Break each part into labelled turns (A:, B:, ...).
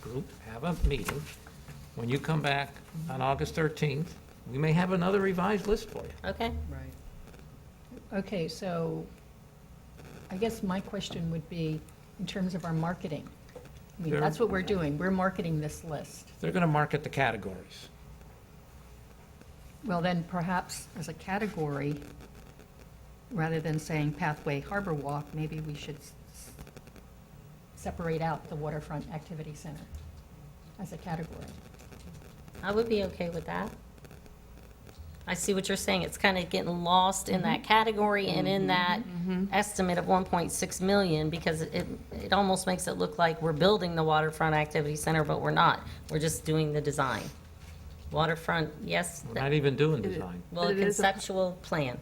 A: group, have a meeting. When you come back on August 13th, we may have another revised list for you.
B: Okay,
C: Right.
D: Okay, so I guess my question would be, in terms of our marketing, I mean,
A: Sure.
D: that's what we're doing, we're marketing this list.
A: They're going to market the categories.
D: Well, then perhaps as a category, rather than saying pathway harbor walk, maybe we should s- s- separate out the waterfront activity center as a category.
B: I would be okay with that. I see what you're saying, it's kind of getting lost in
C: Mm-hmm.
B: that category and in that estimate of 1.6 million, because it, it almost makes it look like we're building the waterfront activity center, but we're not, we're just doing the design. Waterfront, yes,
A: We're
B: that-
A: not even doing design.
B: well, a
C: But it is a-
B: conceptual plan,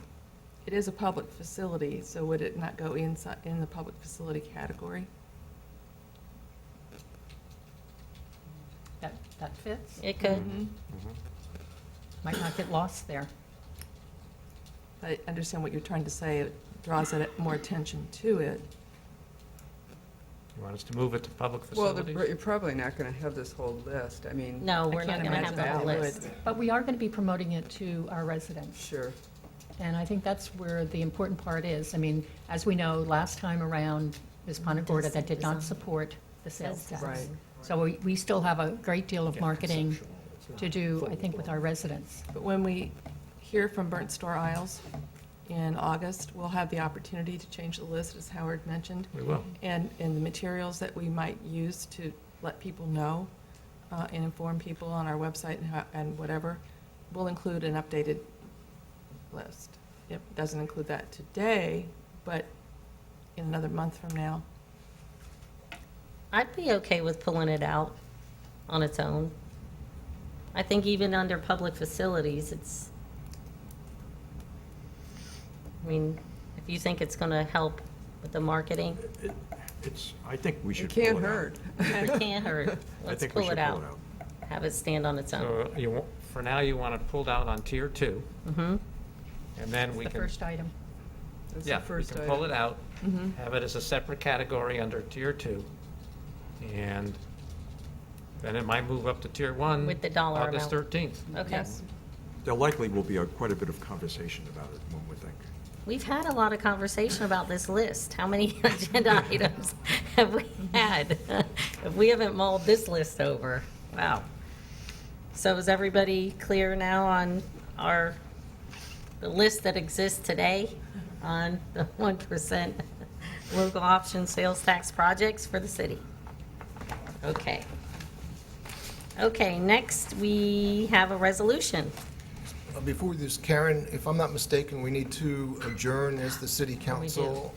C: It is a public facility, so would it not go inside, in the public facility category?
D: That, that fits?
B: it could,
C: Mm-hmm.
D: Might not get lost there.
C: I understand what you're trying to say, it draws it more attention to it.
A: You want us to move it to public
E: Well, the-
A: facilities?
E: you're probably not going to have this whole list, I mean.
B: no,
C: I
B: we're not
C: can't
B: gonna have
C: imagine
B: the
C: how
B: whole
C: they
B: list.
C: would.
D: But we are going to be promoting it to our residents.
E: Sure.
D: And I think that's where the important part is. I mean, as we know, last time around, Ms. Panagorda, that did not support the sales
B: Sales
D: tax.
E: tax.
D: So we, we still have a great deal of
A: Yeah,
D: marketing
A: conceptual. It's not
D: to do, I
A: full
D: think, with
A: blown.
D: our residents.
C: But when we hear from Burnt Store Isles in August, we'll have the opportunity to change the list, as Howard mentioned,
A: We will.
C: and, and the materials that we might use to let people know uh, and inform people on our website and how- and whatever, will include an updated list. It doesn't include that today, but in another month from now.
B: I'd be okay with pulling it out on its own. I think even under public facilities, it's, I mean, if you think it's gonna help with the marketing,
F: It's, I think we
E: It
F: should pull it out.
E: can't hurt.
B: it can't hurt.
F: I
B: Let's
F: think we
B: pull
F: should
B: it out. Have it stand on its own.
A: So you, wa- for now, you want it pulled out on tier two,
B: hmm
A: and then we
D: The
A: can,
D: first item.
E: That's the
A: yeah, we
E: first
A: can pull it
E: item.
A: out, have it as a separate category under tier two, and then it might move up to tier one.
B: With the dollar
A: August
B: amount.
A: 13th.
B: Okay.
C: Yes.
F: There likely will be a- quite a bit of conversation about it, one would think.
B: We've had a lot of conversation about this list. How many agenda items have we had? If we haven't mulled this list over, wow. So is everybody clear now on our, the list that exists today on the 1% local option sales tax projects for the city? Okay. Okay, next, we have a resolution.
G: Uh, Before we do this, Karen, if I'm not mistaken, we need to adjourn as the city council.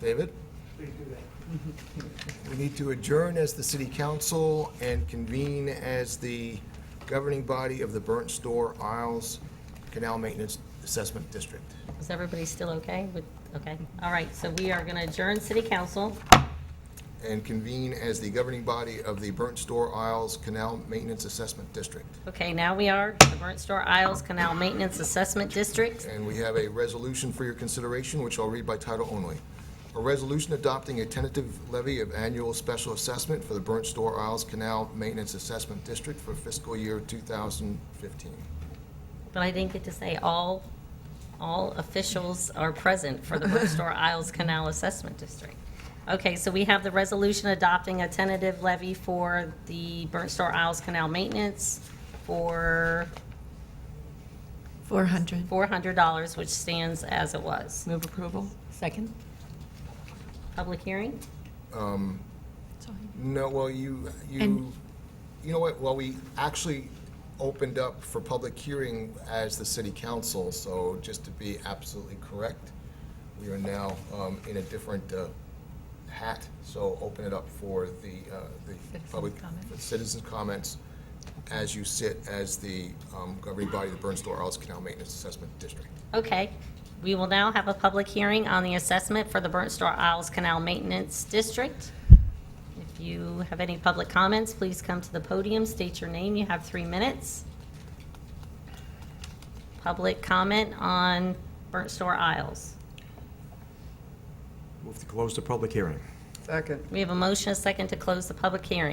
G: David? We need to adjourn as the city council and convene as the governing body of the Burnt Store Isles Canal Maintenance Assessment District.
B: Is everybody still okay with, okay? All right, so we are going to adjourn city council.
G: And convene as the governing body of the Burnt Store Isles Canal Maintenance Assessment District.
B: Okay, now we are the Burnt Store Isles Canal Maintenance Assessment District.
G: And we have a resolution for your consideration, which I'll read by title only. A resolution adopting a tentative levy of annual special assessment for the Burnt Store Isles Canal Maintenance Assessment District for fiscal year 2015.
B: But I didn't get to say all, all officials are present for the Burnt Store Isles Canal Assessment District. Okay, so we have the resolution adopting a tentative levy for the Burnt Store Isles Canal Maintenance for
C: Four hundred.
B: $400, which stands as it was.
C: Move approval?
D: Second?
B: Public hearing?
G: No, well, you, you, you know what, well, we actually opened up for public hearing as the city council, so just to be absolutely correct, we are now um, in a different uh, hat, so open it up for the, uh, the
D: Citizen
G: public,
D: comment.
G: for citizens' comments as you sit as the um, governing body of the Burnsville Arles Canal Maintenance Assessment District.
B: Okay, we will now have a public hearing on the assessment for the Burnt Store Isles Canal Maintenance District. If you have any public comments, please come to the podium, state your name, you have three minutes. Public comment on Burnt Store Isles.
F: Move to close the public hearing.
E: Second.
B: We have a motion, a second to close the public hearing.